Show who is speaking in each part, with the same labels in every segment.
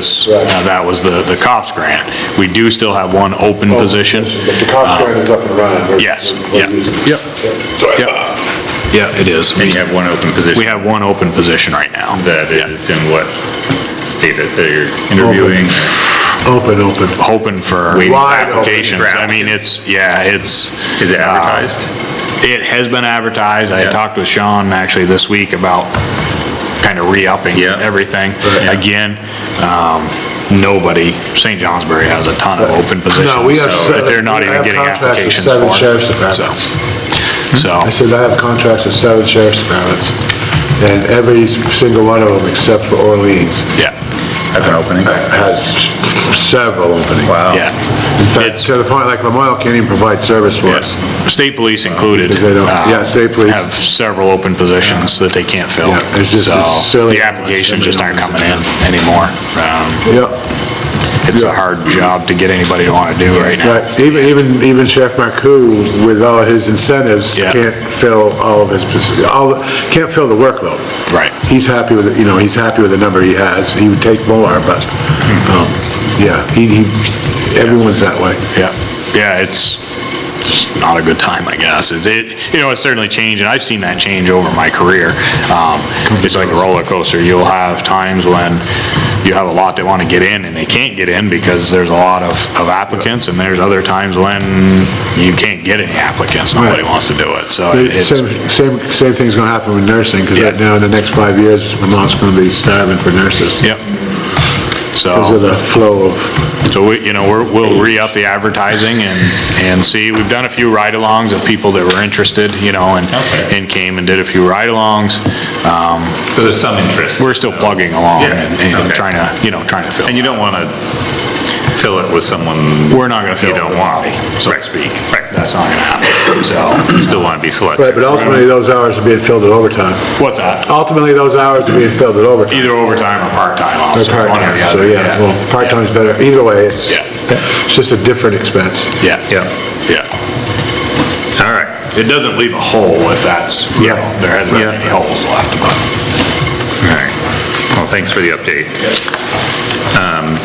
Speaker 1: was, uh, that was the, the COPS grant. We do still have one open
Speaker 2: Oh.
Speaker 1: position. Uh,
Speaker 3: But the cops grant is up and running. We're-
Speaker 1: Yes,
Speaker 3: we're
Speaker 1: yeah.
Speaker 3: using it.
Speaker 2: Yep.
Speaker 4: So I thought,
Speaker 2: Yeah, it is.
Speaker 5: And you have one open
Speaker 1: We
Speaker 5: position
Speaker 1: have one open position right now.
Speaker 5: that is in what state that they're interviewing?
Speaker 2: Open, open.
Speaker 1: Hoping for
Speaker 5: Waiting for
Speaker 2: Wide open.
Speaker 1: applications. I mean, it's, yeah, it's.
Speaker 5: Is it
Speaker 1: uh,
Speaker 5: advertised?
Speaker 1: It has been advertised. I
Speaker 5: Yeah.
Speaker 1: talked with Sean actually this week about kind of re-upping
Speaker 5: Yeah.
Speaker 1: everything.
Speaker 5: Yeah.
Speaker 1: Again, um, nobody, St. Johnsbury has a ton of open positions.
Speaker 2: No, we have
Speaker 1: so
Speaker 2: seven-
Speaker 1: That they're not
Speaker 2: I
Speaker 1: even
Speaker 2: have
Speaker 1: getting
Speaker 2: contracts with
Speaker 1: applications for.
Speaker 2: seven sheriff's
Speaker 1: So,
Speaker 2: departments.
Speaker 1: So,
Speaker 2: I said I have contracts with seven sheriff's departments, and every single one of them, except for Orleans,
Speaker 1: yeah,
Speaker 5: As an opening?
Speaker 2: has several openings.
Speaker 5: Wow.
Speaker 2: In
Speaker 1: yeah.
Speaker 2: fact,
Speaker 1: It's,
Speaker 2: to the point, like, Lamoille can't even provide service for us.
Speaker 1: yeah, state police included.
Speaker 2: Because they don't-
Speaker 1: uh,
Speaker 2: yeah, state police.
Speaker 1: Have several open positions that they can't fill.
Speaker 2: Yeah, it's just-
Speaker 1: So,
Speaker 2: it's silly.
Speaker 1: The applications just aren't coming in anymore. Um,
Speaker 2: Yep,
Speaker 1: It's a
Speaker 2: Yeah.
Speaker 1: hard job to get anybody to want to do right now.
Speaker 2: right, even, even, even Sheriff Marcoux, with all his incentives,
Speaker 1: Yeah.
Speaker 2: can't fill all of his, posi- all, can't fill the workload.
Speaker 1: Right.
Speaker 2: He's happy with, it. you know, he's happy with the number he has, he would take more, but, um, yeah, he, he, everyone's that way.
Speaker 1: Yeah, yeah, it's just not a good time, I guess. It's, it, you know, it's certainly changed, and I've seen that change over my career. Um, It's like a roller coaster. You'll have times when you have a lot that want to get in, and they can't get in because there's a lot of, of applicants, and there's other times when you can't get any applicants. Nobody wants to do it, so it's,
Speaker 2: Same, same, same thing's gonna happen with nursing, because right
Speaker 1: Yeah.
Speaker 2: now, in the next five years, Vermont's gonna be starving for nurses.
Speaker 1: yep. So.
Speaker 2: Because of the flow of,
Speaker 1: So we, you know, we're, we'll re-up the advertising and, and see, we've done a few ride-alongs of people that were interested, you know, and,
Speaker 5: Okay.
Speaker 1: and came and did a few ride-alongs. Um,
Speaker 5: So there's some interest.
Speaker 1: We're still plugging along
Speaker 5: Yeah,
Speaker 1: and, and
Speaker 5: okay.
Speaker 1: trying to, you know, trying to fill.
Speaker 5: And you don't want to fill it with someone
Speaker 1: We're not gonna
Speaker 5: you
Speaker 1: fill
Speaker 5: don't
Speaker 1: the
Speaker 5: want,
Speaker 1: body,
Speaker 5: so to speak. Right.
Speaker 1: That's not gonna happen, so.
Speaker 5: You still want to be
Speaker 2: right,
Speaker 5: selective.
Speaker 2: but ultimately, those hours are being filled at overtime.
Speaker 1: What's that?
Speaker 2: Ultimately, those hours are being filled at overtime.
Speaker 1: Either overtime or part-time
Speaker 2: Or
Speaker 1: officer, one or
Speaker 2: part-time,
Speaker 1: the
Speaker 2: so
Speaker 1: other.
Speaker 2: yeah, well, part-time's better, either way, it's,
Speaker 1: Yeah.
Speaker 2: it's just a different expense.
Speaker 1: Yeah, yeah,
Speaker 5: Yeah,
Speaker 1: yeah.
Speaker 5: all right.
Speaker 1: It doesn't leave a hole if that's, you know,
Speaker 2: Yeah.
Speaker 1: there hasn't been
Speaker 5: Yeah.
Speaker 1: any holes left, but.
Speaker 5: All right. Well, thanks for the update. Um,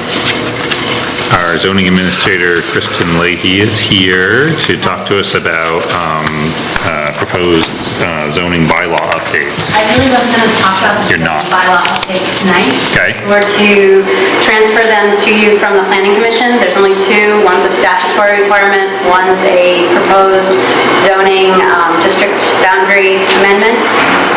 Speaker 5: Our zoning administrator, Kristen Leahy, is here to talk to us about um, uh, proposed uh, zoning bylaw updates.
Speaker 6: I really wasn't gonna talk about the
Speaker 5: You're not.
Speaker 6: bylaw update tonight.
Speaker 5: Okay.
Speaker 6: We're to transfer them to you from the planning commission. There's only two. One's a statutory requirement, one's a proposed zoning um, district boundary amendment.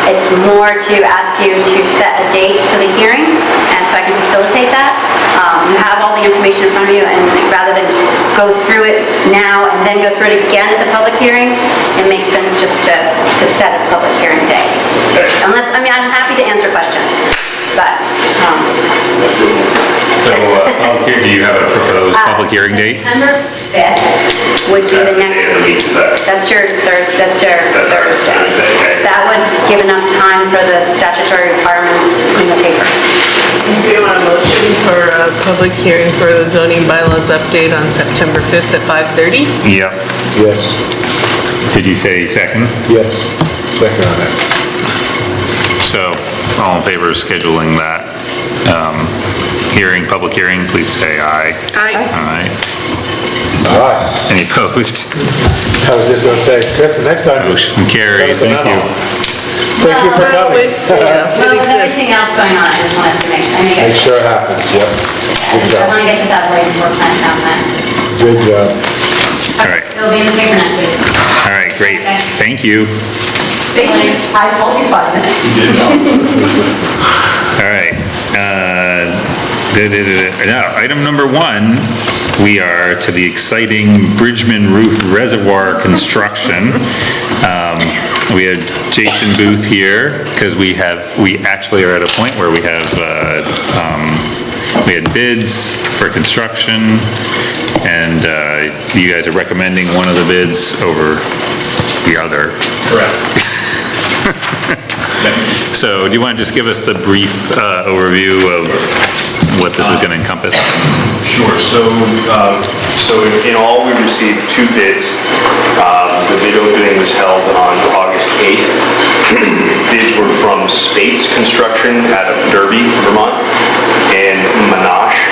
Speaker 6: It's more to ask you to set a date for the hearing, and so I can facilitate that. Um, You have all the information in front of you, and rather than go through it now and then go through it again at the public hearing, it makes sense just to, to set a public hearing date. Unless, I mean, I'm happy to answer questions, but, um...
Speaker 5: So, uh, public hear- do you have a proposed public hearing
Speaker 6: uh,
Speaker 5: date?
Speaker 6: September 5th would be the next
Speaker 5: Yeah, the week
Speaker 6: week.
Speaker 5: is that.
Speaker 6: That's your Thursday, that's your
Speaker 5: That's our
Speaker 6: Thursday.
Speaker 5: Thursday, okay.
Speaker 6: That would give enough time for the statutory requirements in the paper.
Speaker 7: Do you want a motion for a public hearing for the zoning bylaws update on September 5th at 5:30?
Speaker 5: Yep.
Speaker 2: Yes,
Speaker 5: Did you say second?
Speaker 2: yes, second on that.
Speaker 5: So, all in favor of scheduling that um, hearing, public hearing, please say aye.
Speaker 7: Aye.
Speaker 5: Aye.
Speaker 2: All right,
Speaker 5: Any opposed?
Speaker 2: I was just gonna say, Chris, the next time. just
Speaker 5: Motion carries,
Speaker 2: send us
Speaker 5: thank
Speaker 2: a
Speaker 5: you.
Speaker 2: memo. Thank you for
Speaker 7: Well,
Speaker 2: coming.
Speaker 7: with- yeah,
Speaker 6: Well,
Speaker 7: it
Speaker 6: with everything
Speaker 7: exists.
Speaker 6: else going on, I just wanted to make, I make
Speaker 2: It
Speaker 6: it,
Speaker 2: sure happens, yep.
Speaker 6: I
Speaker 2: Good
Speaker 6: just want
Speaker 2: job,
Speaker 6: to get this out of the way before plan, town plan.
Speaker 2: good job.
Speaker 5: All right,
Speaker 6: It'll be in the paper next week.
Speaker 5: all right, great, thank you.
Speaker 6: I told you five minutes.
Speaker 5: All right. uh, da-da-da-da. Now, item number one, we are to the exciting Bridgman Roof Reservoir construction. Um, We had Jason Booth here, because we have, we actually are at a point where we have, uh, um, we had bids for construction, and uh, you guys are recommending one of the bids over the other. So do you want to just give us the brief uh, overview of what this is going to encompass?
Speaker 8: Sure, so, um, so in- in all, we received two bids. Um, The bid opening was held on August 8th. Bids were from Spates Construction out of Derby, Vermont, and